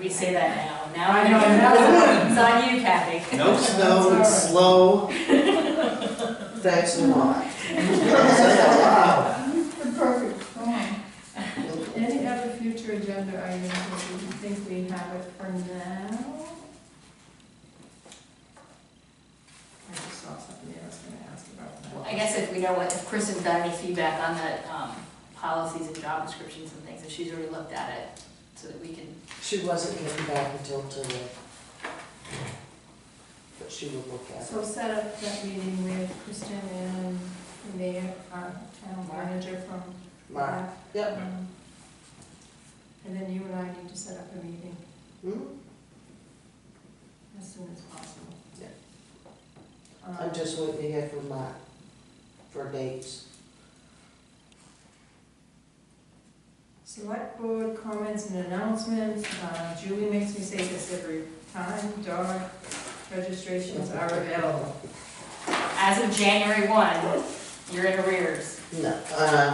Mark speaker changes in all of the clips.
Speaker 1: that now, now I
Speaker 2: I know,
Speaker 1: know.
Speaker 2: now-
Speaker 1: It's on you, Kathy.
Speaker 3: No snow, it's slow.
Speaker 2: Thanks a lot.
Speaker 3: Wow.
Speaker 4: The perfect storm. Any other future agenda items that you think we have it for now? I just saw something I was gonna ask about that.
Speaker 1: I guess if we know what, if Kristen got any feedback on the, um, policies and job descriptions and things, if she's already looked at it, so that we can,
Speaker 2: She wasn't getting back until today. But she will look at it.
Speaker 4: So set up that meeting with Kristen and the mayor, our town manager from.
Speaker 2: Mark, yep.
Speaker 4: Um, And then you and I need to set up a meeting
Speaker 2: Hmm?
Speaker 4: as soon as possible.
Speaker 2: Yeah.
Speaker 4: Um,
Speaker 2: I'm just waiting to hear from Mark for dates.
Speaker 4: Select board comments and announcements, Uh, Julie makes me say this every time, dog registrations are available.
Speaker 1: as of January one, you're in arrears.
Speaker 2: No, uh,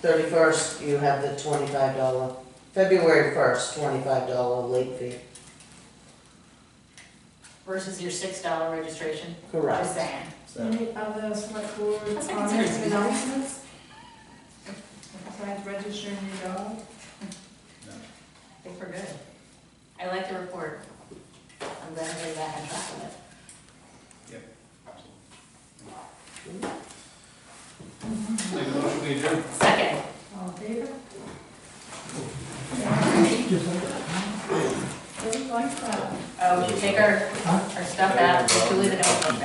Speaker 2: thirty-first, you have the twenty-five dollar, February first, twenty-five dollar late fee.
Speaker 1: versus your six dollar registration. Just
Speaker 2: Correct.
Speaker 1: saying.
Speaker 3: So,
Speaker 4: Any other select board
Speaker 1: That's like
Speaker 4: comments and
Speaker 1: considered-
Speaker 4: announcements? Besides registering your dog?
Speaker 1: I think we're good. I like the report. I'm glad we're back on track with it.
Speaker 3: Make a motion, we adjourn.
Speaker 1: Second,
Speaker 4: All in favor? Don't like that. uh,
Speaker 1: oh, we should take our, our stuff out, just leave the notebook